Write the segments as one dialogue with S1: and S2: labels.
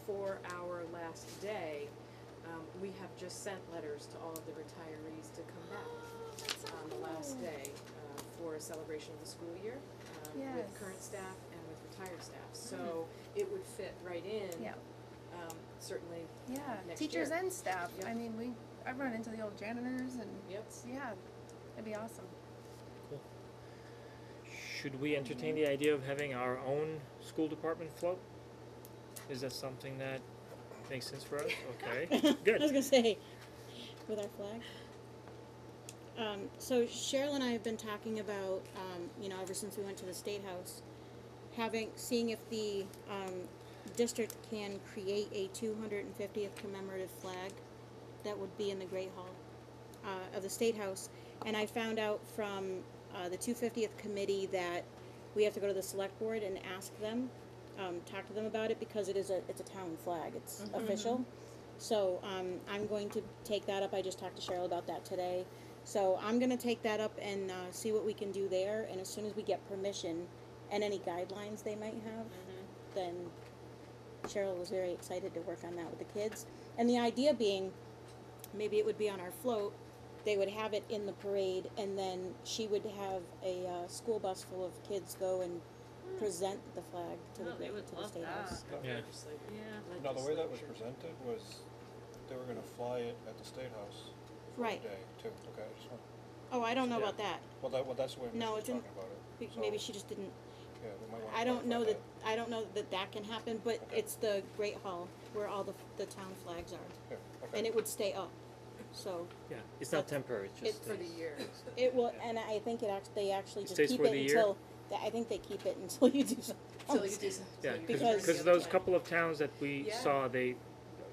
S1: before our last day, um, we have just sent letters to all of the retirees to come back on the
S2: Oh.
S1: last day uh, for a celebration of the school year um, with
S3: Yes.
S1: current staff and with retired
S2: Mm.
S1: staff. So it would fit right in.
S3: Yeah.
S1: um, Certainly. uh,
S3: Yeah,
S1: next
S3: teachers
S1: year.
S3: and staff.
S1: Yep.
S3: I mean, we, I've run into the old janitors and,
S1: Yep.
S3: yeah, that'd be awesome.
S4: Should we entertain the idea of having our own school department float? Is that something that makes sense for us? Okay,
S5: I was
S4: good.
S5: gonna say, with our flag. Um, so Cheryl and I have been talking about, um, you know, ever since we went to the State House, having, seeing if the, um, district can create a two hundred and fiftieth commemorative flag that would be in the Great Hall, uh, of the State House. And I found out from, uh, the two fiftieth committee that we have to go to the select board and ask them, um, talk to them about it because it is a, it's a town flag, it's official. So um, I'm going to take that up. I just talked to Cheryl about that today. So I'm going to take that up and uh, see what we can do there. And as soon as we get permission and any guidelines they might have,
S2: Mm-hmm.
S5: then Cheryl was very excited to work on that with the kids. And the idea being, maybe it would be on our float. They would have it in the parade, and then she would have a uh, school bus full of kids go and present the flag to the,
S2: Hmm. Oh, they
S5: great-
S2: would
S5: to the
S2: love
S5: state
S2: that.
S5: house.
S4: Yeah.
S1: Uh, Legislative-
S2: Yeah.
S6: No, the way that was
S1: legislature.
S6: presented was they were gonna fly it at the State House for a
S5: Right.
S6: day too. Okay, I just want,
S5: Oh, I don't know
S4: Yeah.
S5: about that.
S6: well, that, well, that's the way Mitch
S5: No,
S6: was
S5: it's in-
S6: talking about it.
S5: Be-
S6: So,
S5: Maybe she just didn't
S6: Yeah, we might wanna.
S5: I don't
S6: clarify
S5: know that, I don't know that that can happen, but
S6: Okay.
S5: it's the Great Hall where all the, the town flags are.
S6: Yeah, okay.
S5: And it would stay up, so
S4: Yeah, it's not temporary, it's just.
S5: It's
S1: For the year.
S5: it will, and I think it act, they actually
S4: It
S5: just
S4: stays
S5: keep
S4: for
S5: it
S4: the year?
S5: until, th- I think they keep it until you do something
S2: Oh,
S1: Till you
S5: else.
S1: do some- till
S4: Yeah,
S1: you
S4: cause,
S1: turn the
S4: 'cause
S1: other
S4: those
S1: way.
S4: couple of towns that we
S1: Yeah.
S4: saw, they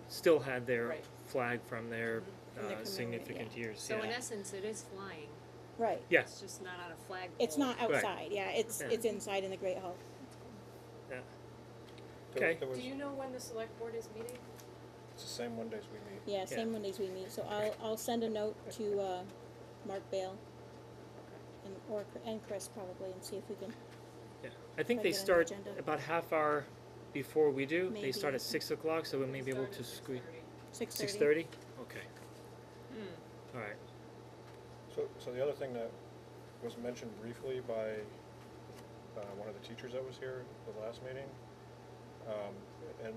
S4: still had their
S1: Right.
S4: flag from their
S5: From their
S4: uh,
S5: commemorative,
S4: significant
S5: yeah.
S4: years,
S2: So in
S4: yeah.
S2: essence, it is flying.
S5: Right,
S2: It's
S4: Yes,
S2: just not on a flagpole.
S5: it's not
S4: Right.
S5: outside, yeah, it's,
S4: Yeah.
S5: it's inside in the Great Hall.
S4: yeah,
S6: There-
S4: okay.
S6: there was-
S1: Do you know when the select board is meeting?
S6: It's the same Mondays we meet.
S5: Yeah,
S4: Yeah.
S5: same Mondays we meet, so I'll, I'll send a note to, uh, Mark Bale and, or, and Chris probably, and see if we can,
S4: yeah. I think
S5: Put
S4: they
S5: it on the
S4: start
S5: agenda.
S4: about half hour before we do. They start
S5: Maybe.
S4: at six o'clock, so we may be able
S1: Start
S4: to
S1: at
S4: squeeze.
S1: 6:30.
S5: six thirty?
S4: Six thirty? Okay.
S2: Hmm.
S4: Alright,
S6: So, so the other thing that was mentioned briefly by uh, one of the teachers that was here the last meeting, um, and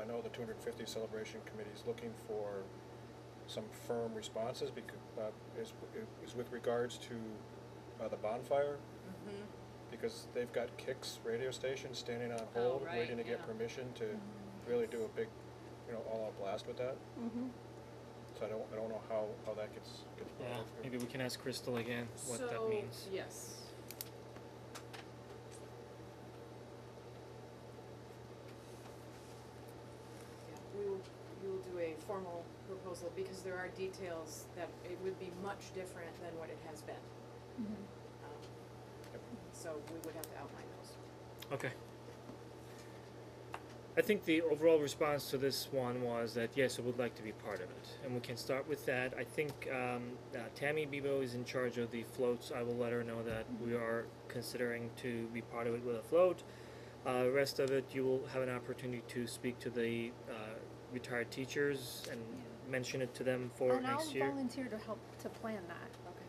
S6: I know the 250 Celebration Committee is looking for some firm responses because uh, is, is with regards to uh, the bonfire.
S2: Mm-hmm.
S6: Because they've got Kix radio station standing on hold,
S2: Oh, right,
S6: waiting to
S2: yeah.
S6: get
S2: Mm-hmm.
S6: permission to really do a big, you know, all-out blast with that.
S5: Mm-hmm,
S6: So I don't, I don't know how, how that gets. gets brought
S4: yeah,
S6: up here.
S4: maybe we can ask Crystal again what that
S1: So,
S4: means.
S1: Yes. Yeah, We will, we will do a formal proposal because there are details that it would be much different than what it has been.
S3: Mm-hmm.
S1: Um,
S6: Yep.
S1: So we would have to outline those.
S4: Okay. I think the overall response to this one was that yes, I would like to be part of it, and we can start with that. I think um, uh, Tammy Bebo is in charge of the floats. I will let her know that we are considering to be part of it with a float. Uh, rest of it, you will have an opportunity to speak to the uh, retired teachers and mention it to them for
S3: And
S4: next
S3: I'll
S4: year.
S3: volunteer to help to plan that.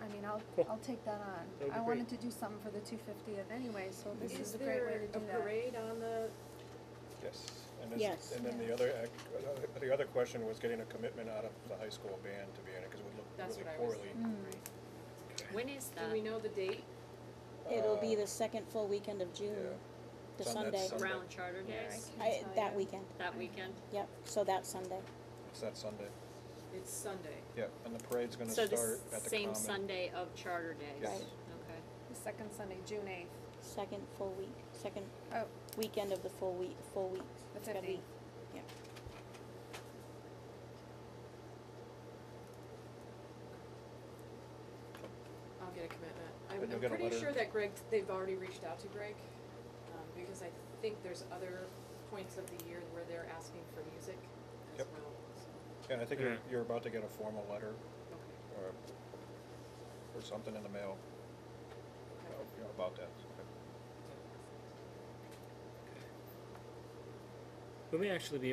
S3: I mean, I'll,
S4: Cool.
S3: I'll take that on.
S4: That would be
S3: I wanted to do
S4: great.
S3: something for the two fiftieth anyway, so this
S1: Is
S3: is a great way
S1: there
S3: to
S1: a
S3: do that.
S1: parade on the,
S6: Yes, and then,
S5: Yes.
S6: and then the
S3: Yeah.
S6: other, ac- uh, the other question was getting a commitment out of the high school band to be in it, because it would look
S1: That's
S6: really
S1: what I was
S6: poorly.
S3: Mm.
S2: When is that?
S1: do we know the date?
S5: Mm. It'll be
S6: Uh,
S5: the second full weekend of June,
S6: Yeah,
S5: the
S6: It's on that
S5: Sunday,
S6: Sunday.
S2: Around Charter Days?
S5: I, that weekend,
S2: That weekend?
S5: yep, so that Sunday.
S6: it's that Sunday,
S1: It's Sunday.
S6: yeah, and the parade's gonna
S2: So
S6: start at the
S2: the
S6: common.
S2: same Sunday of Charter Days?
S6: Yes.
S2: Okay.
S3: The second Sunday, June eighth.
S5: Second full week, second
S3: Oh,
S5: weekend of the full week, full week.
S3: The
S5: It's gonna be-
S3: 15th.
S5: Yeah.
S1: I'll get a commitment. I'm,
S6: And you'll
S1: I'm
S6: get a
S1: pretty
S6: letter.
S1: sure that Greg, they've already reached out to Greg, um, because I think there's other points of the year where they're asking for music as
S6: Yep.
S1: well, so,
S6: Yeah, I think you're,
S4: Yeah.
S6: you're about to get a formal letter
S1: okay.
S6: or, or something in the mail uh, you know, about that.
S4: We may actually be